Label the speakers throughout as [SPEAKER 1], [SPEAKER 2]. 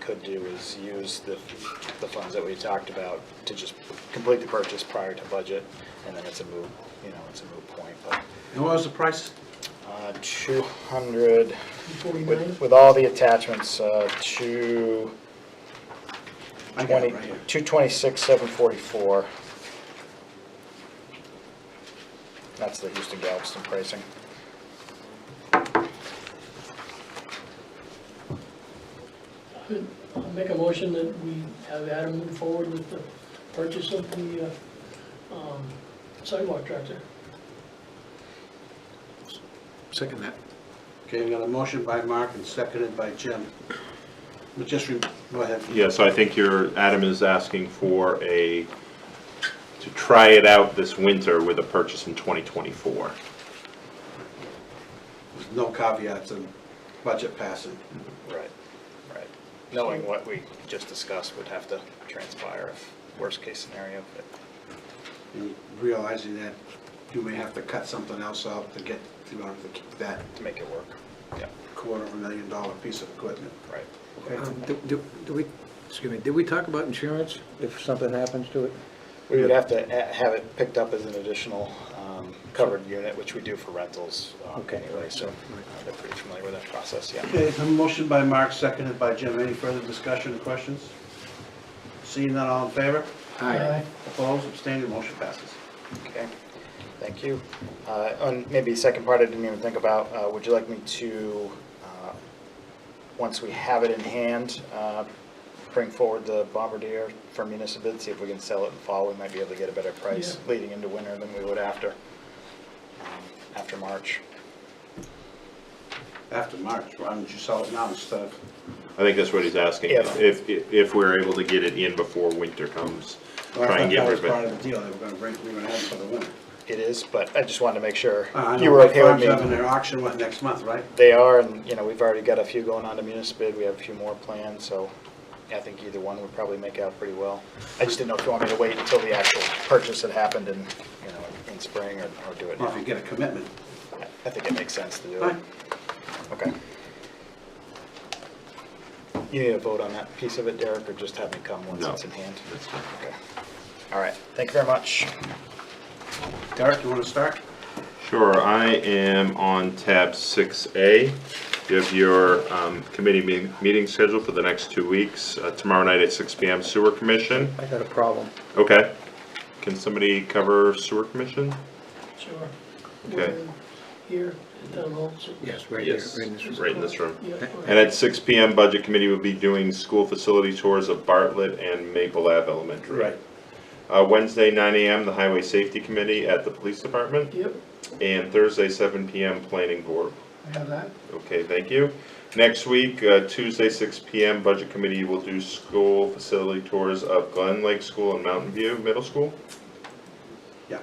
[SPEAKER 1] could do is use the, the funds that we talked about to just complete the purchase prior to budget, and then it's a moot, you know, it's a moot point, but,
[SPEAKER 2] And what was the price?
[SPEAKER 1] uh, two hundred,
[SPEAKER 3] Forty-nine?
[SPEAKER 1] with, with all the attachments, uh, two
[SPEAKER 2] I got
[SPEAKER 1] twenty,
[SPEAKER 2] it right here.
[SPEAKER 1] two twenty-six, seven forty-four. That's the Houston Galveston pricing.
[SPEAKER 3] I'll make a motion that we have Adam move forward with the purchase of the uh, um, sidewalk tractor.
[SPEAKER 2] Second that. Okay, we got a motion by Mark and seconded by Jim. But just, re- go ahead.
[SPEAKER 4] Yeah, so I think your, Adam is asking for a, to try it out this winter with a purchase in 2024.
[SPEAKER 2] There's No caveats and budget passing.
[SPEAKER 1] Right, right. Knowing what we just discussed would have to transpire, if worst-case scenario, but,
[SPEAKER 2] And Realizing that you may have to cut something else out to get, in order to keep that
[SPEAKER 1] to make it work. Yeah,
[SPEAKER 2] quarter of a million dollar piece of equipment.
[SPEAKER 1] right.
[SPEAKER 5] Um, Do do- do we, excuse me, did we talk about insurance if something happens to it?
[SPEAKER 1] We would have to a- have it picked up as an additional um, covered unit, which we do for rentals um,
[SPEAKER 5] Okay.
[SPEAKER 1] anyway, so uh, they're pretty familiar with that process, yeah.
[SPEAKER 2] Okay, a motion by Mark, seconded by Jim. Any further discussion or questions? Seeing none, all in favor?
[SPEAKER 3] Aye.
[SPEAKER 2] Opposed, abstaining, motion passes.
[SPEAKER 1] Okay, thank you. Uh, And maybe second part I didn't even think about, uh, would you like me to, uh, once we have it in hand, uh, bring forward the Bombardier for municipal, see if we can sell it in fall, we might be able to get a better price
[SPEAKER 3] Yeah.
[SPEAKER 1] leading into winter than we would after, um, after March.
[SPEAKER 2] After March, why don't you sell it now instead of
[SPEAKER 4] I think that's what he's asking,
[SPEAKER 1] Yeah.
[SPEAKER 4] if, if- if we're able to get it in before winter comes,
[SPEAKER 2] Well, I
[SPEAKER 4] try and
[SPEAKER 2] thought
[SPEAKER 4] get
[SPEAKER 2] that
[SPEAKER 4] rid
[SPEAKER 2] was
[SPEAKER 4] of
[SPEAKER 2] part
[SPEAKER 4] it.
[SPEAKER 2] of the deal, they were gonna bring, we were gonna have it for the winter.
[SPEAKER 1] It is, but I just wanted to make sure
[SPEAKER 2] Uh, I know
[SPEAKER 1] you were okay with
[SPEAKER 2] Farms
[SPEAKER 1] me.
[SPEAKER 2] having their auction, what, next month, right?
[SPEAKER 1] They are, and, you know, we've already got a few going on to Municipal, we have a few more planned, so I think either one would probably make out pretty well. I just didn't know if you want me to wait until the actual purchase had happened in, you know, in spring or, or do it
[SPEAKER 2] Well,
[SPEAKER 1] now.
[SPEAKER 2] if you get a commitment.
[SPEAKER 1] I think it makes sense to do it.
[SPEAKER 2] Fine.
[SPEAKER 1] Okay. You need a vote on that piece of it, Derek, or just have me come once
[SPEAKER 4] No.
[SPEAKER 1] it's in hand?
[SPEAKER 4] That's fine.
[SPEAKER 1] Okay. All right, thank you very much.
[SPEAKER 2] Derek, you wanna start?
[SPEAKER 4] Sure, I am on tab 6A. You have your um, committee me- meeting scheduled for the next two weeks, Uh, tomorrow night at 6 PM, Sewer Commission.
[SPEAKER 5] I got a problem.
[SPEAKER 4] Okay. Can somebody cover Sewer Commission?
[SPEAKER 3] Sure.
[SPEAKER 4] Okay.
[SPEAKER 3] uh, We're Here at Town Hall. so-
[SPEAKER 5] Yes, right here. right in this room.
[SPEAKER 4] Right in this room.
[SPEAKER 3] Yeah, all right.
[SPEAKER 4] And at 6 PM, Budget Committee will be doing school facility tours of Bartlett and Maple Ave Elementary. Uh, Wednesday, 9 AM, the Highway Safety Committee at the Police Department,
[SPEAKER 3] Yep,
[SPEAKER 4] and Thursday, 7 PM, Planning Board.
[SPEAKER 2] I have that.
[SPEAKER 4] Okay, thank you. Next week, uh, Tuesday, 6 PM, Budget Committee will do school facility tours of Glen Lake School and Mountain View Middle School.
[SPEAKER 2] Yeah.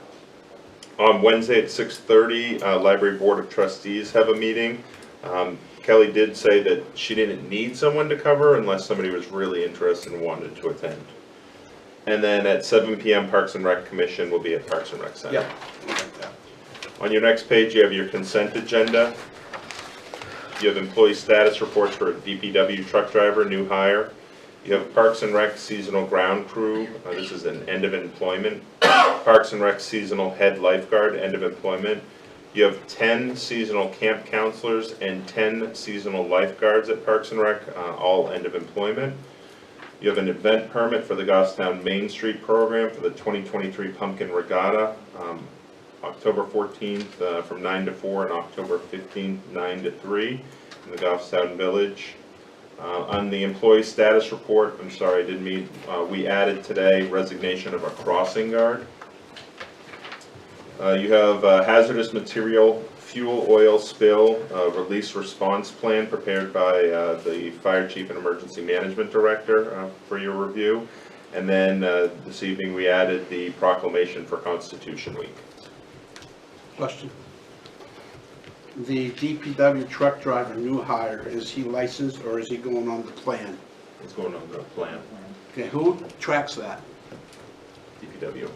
[SPEAKER 4] On Wednesday at 6:30, uh, Library Board of Trustees have a meeting. Um, Kelly did say that she didn't need someone to cover unless somebody was really interested and wanted to attend. And then at 7 PM, Parks and Rec Commission will be at Parks and Rec Center.
[SPEAKER 2] Yeah. I like that.
[SPEAKER 4] On your next page, you have your consent agenda. You have employee status reports for a DPW truck driver, new hire. You have Parks and Rec seasonal ground crew, uh, this is an end of employment. Parks and Rec seasonal head lifeguard, end of employment. You have ten seasonal camp counselors and ten seasonal lifeguards at Parks and Rec, uh, all end of employment. You have an event permit for the Goffstown Main Street program for the 2023 Pumpkin Regatta, um, October 14th uh, from 9 to 4 and October 15th, 9 to 3 in the Goffstown Village. Uh, On the employee status report, I'm sorry, I didn't mean, uh, we added today resignation of a crossing guard. Uh, You have uh, hazardous material, fuel oil spill, uh, release response plan prepared by uh, the fire chief and emergency management director uh, for your review. And then uh, this evening, we added the proclamation for Constitution Week.
[SPEAKER 2] Question. The DPW truck driver, new hire, is he licensed or is he going on the plan?
[SPEAKER 4] What's going on with the plan?
[SPEAKER 2] Okay, who tracks that?
[SPEAKER 4] DPW.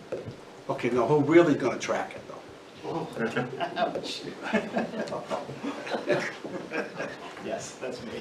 [SPEAKER 2] Okay, now who really gonna track it though?
[SPEAKER 1] Yes, that's me.